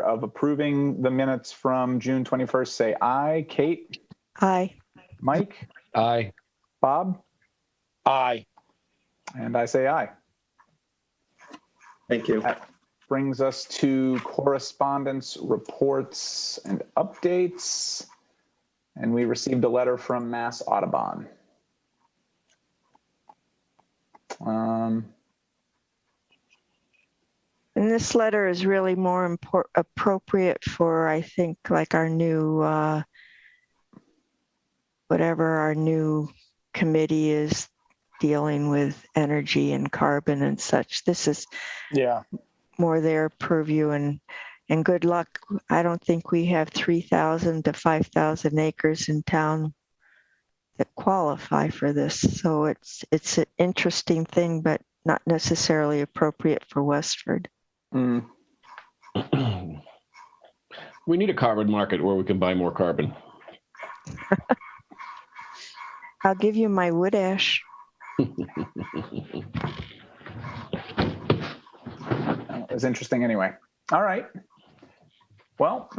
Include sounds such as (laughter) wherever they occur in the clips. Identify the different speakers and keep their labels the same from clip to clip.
Speaker 1: of approving the minutes from June 21st, say aye. Kate,
Speaker 2: Aye.
Speaker 1: Mike,
Speaker 3: Aye.
Speaker 1: Bob,
Speaker 4: Aye.
Speaker 1: and I say aye.
Speaker 5: Thank you.
Speaker 1: Brings us to correspondence, reports, and updates. And we received a letter from Mass Audubon. Um,
Speaker 2: And this letter is really more impor- appropriate for, I think, like our new, uh, whatever our new committee is dealing with energy and carbon and such. This is
Speaker 4: Yeah.
Speaker 2: more their purview and, and good luck. I don't think we have 3,000 to 5,000 acres in town that qualify for this. So it's, it's an interesting thing, but not necessarily appropriate for Westford.
Speaker 1: mm,
Speaker 3: We need a carbon market where we can buy more carbon.
Speaker 2: I'll give you my wood ash.
Speaker 1: It was interesting anyway. All right. Well,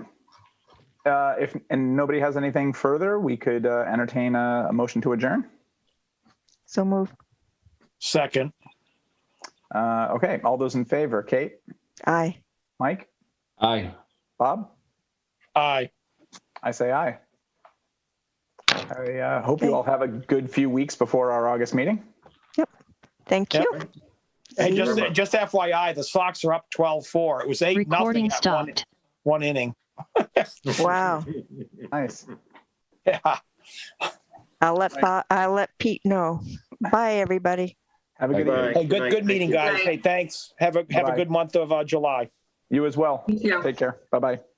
Speaker 1: uh, if and nobody has anything further, we could uh, entertain a, a motion to adjourn.
Speaker 2: So move.
Speaker 4: Second.
Speaker 1: Uh, okay. All those in favor, Kate,
Speaker 2: Aye.
Speaker 1: Mike,
Speaker 3: Aye.
Speaker 1: Bob,
Speaker 4: Aye.
Speaker 1: I say aye. I uh, hope you all have a good few weeks before our August meeting.
Speaker 2: Thank
Speaker 4: Yep.
Speaker 2: you.
Speaker 4: Hey,
Speaker 2: See you.
Speaker 4: just, just FYI, the Sox are up 12-4. It was eight, nothing
Speaker 6: Recording
Speaker 4: at one,
Speaker 6: stopped.
Speaker 4: one inning. (laughs)
Speaker 2: Wow.
Speaker 1: Nice.
Speaker 4: Yeah.
Speaker 2: I'll let, Bo- I'll let Pete know. Bye, everybody.
Speaker 1: Have a good
Speaker 3: Bye.
Speaker 1: evening.
Speaker 4: Hey, good, good meeting, guys. Hey, thanks. Have a, have a
Speaker 1: Bye.
Speaker 4: good month of uh, July.
Speaker 1: You as well.
Speaker 7: Thank you.
Speaker 1: Take care. Bye bye.